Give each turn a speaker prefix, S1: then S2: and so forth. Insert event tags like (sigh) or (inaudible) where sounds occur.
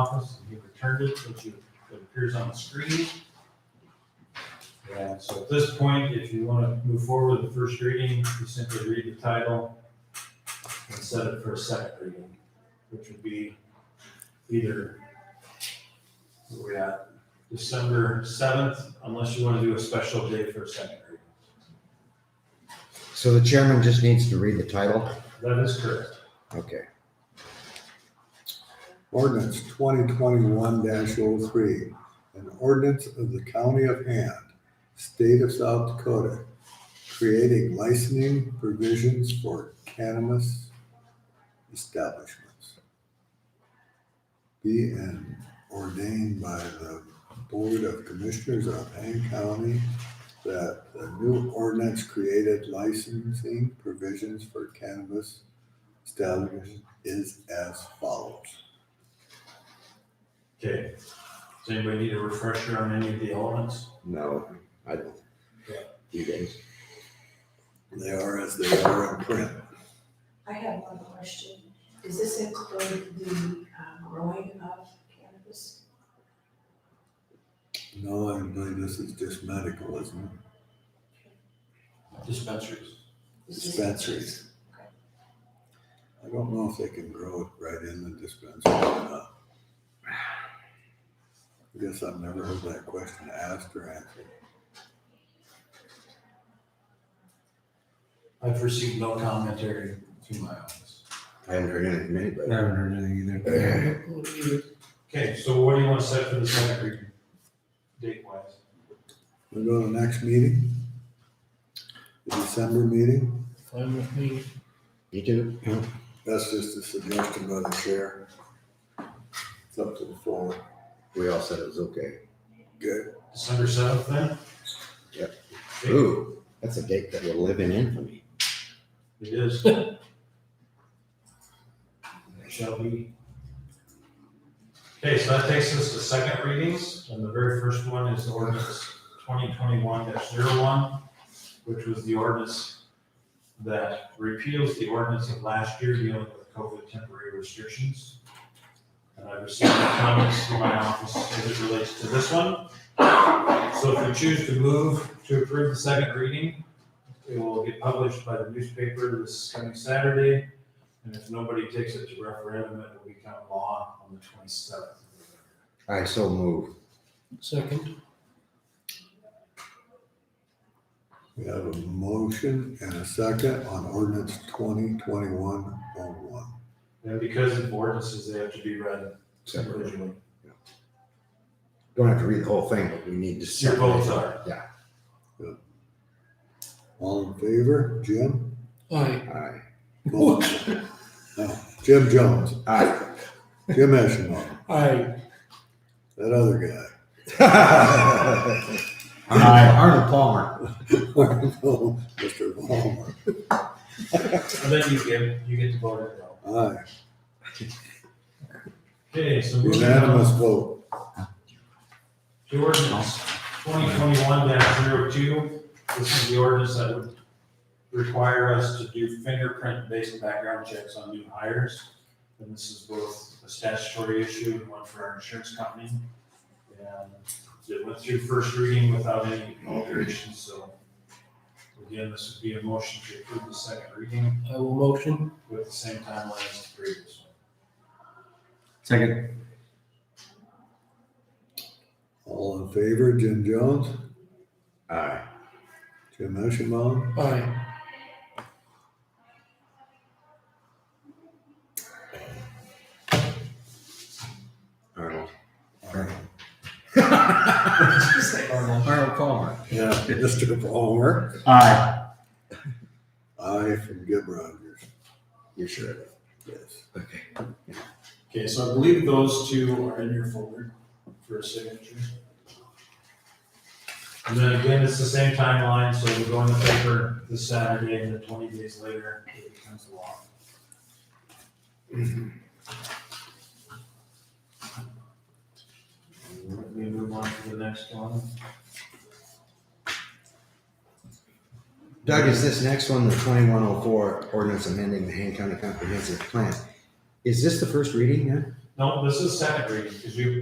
S1: office, and he returned it, which you- that appears on the screen. And so at this point, if you want to move forward with the first reading, you simply read the title and set it for a second reading, which would be either, we're at December seventh, unless you want to do a special day for a second reading.
S2: So the chairman just needs to read the title?
S1: That is correct.
S2: Okay.
S3: Ordinance twenty twenty-one 3 an ordinance of the county of Hand, state of South Dakota, creating licensing provisions for cannabis establishments. Be and ordained by the Board of Commissioners of Hand County that the new ordinance created licensing provisions for cannabis establishments is as follows.
S1: Okay. Does anybody need a refresher on any of the elements?
S2: No, I don't.
S1: Yeah.
S2: You guys?
S3: They are as they are in print.
S4: I have one question. Does this include the um, growing of cannabis?
S3: No, I believe this is just medical, isn't it?
S1: Dispensaries.
S4: Is this-
S3: Dispensaries. I don't know if they can grow it right in the dispensary or not. I guess I've never heard that question asked or answered.
S1: I've received no commentary through my office.
S2: I haven't heard anything from anybody.
S5: haven't heard anything
S2: Uh,
S1: Okay, so what do you want to set for the second reading? Date wise?
S3: We go to the next meeting? The December meeting?
S5: Fine with me.
S2: You too?
S3: That's just a suggestion by the chair. It's up to the floor.
S2: We all said it was okay.
S3: Good.
S1: December seventh then?
S2: Yep.
S1: Okay,
S2: Ooh, that's a date that will live in infamy.
S1: It is. It Shall be. Okay, so that takes us to second readings, and the very first one is ordinance twenty twenty-one one which was the ordinance that repeals the ordinance of last year dealing with COVID temporary restrictions. And I received comments from my office as it relates to this one. So if you choose to move to approve the second reading, it will get published by the newspaper this coming Saturday, and if nobody takes it to referendum, it will become law on the twenty-seventh.
S2: I so move.
S5: Second.
S3: We have a motion and a second on ordinance twenty twenty-one oh one.
S1: And because of ordinances, they have to be read
S2: Separate.
S1: individually.
S2: Don't have to read the whole thing, but we need to.
S1: Your votes
S2: separate.
S1: are.
S2: Yeah.
S3: All in favor, Jim?
S5: Aye.
S2: Aye.
S3: Both. No, Jim Jones,
S2: Aye.
S3: Jim Eschenbaum,
S5: Aye.
S3: that other guy. (laughs)
S2: Aye. Arnold Palmer.
S3: Mr. Ballmer,
S1: And then you get, you get to vote it out.
S3: aye,
S1: Okay, so moving
S3: unanimous
S1: on
S3: vote.
S1: to ordinance twenty twenty-one 2 This is the ordinance that would require us to do fingerprint-based background checks on new hires. And this is both a statutory issue and one for our insurance company. And it went through first reading without any alterations, so again, this would be a motion to approve the second reading
S5: I will motion.
S1: with the same timeline as the previous one.
S5: Second.
S3: All in favor, Jim Jones,
S2: Aye.
S3: Jim Eschenbaum,
S5: Aye.
S2: Arnold.
S3: Aye.
S2: Arnold Palmer.
S3: (laughs) yeah, Mr. Ballmer,
S2: Aye.
S3: aye from Jim Rogers,
S2: (laughs) You're sure of it?
S3: yes.
S2: Okay.
S1: Okay, so I believe those two are in your folder for a signature. And then again, it's the same timeline, so we go in the paper this Saturday, and then twenty days later, it becomes law. Let me move on to the next one.
S2: Doug, is this next one, the twenty-one oh four ordinance amending the Hand County Comprehensive Plan? Is this the first reading now?
S1: No, this is second reading, because you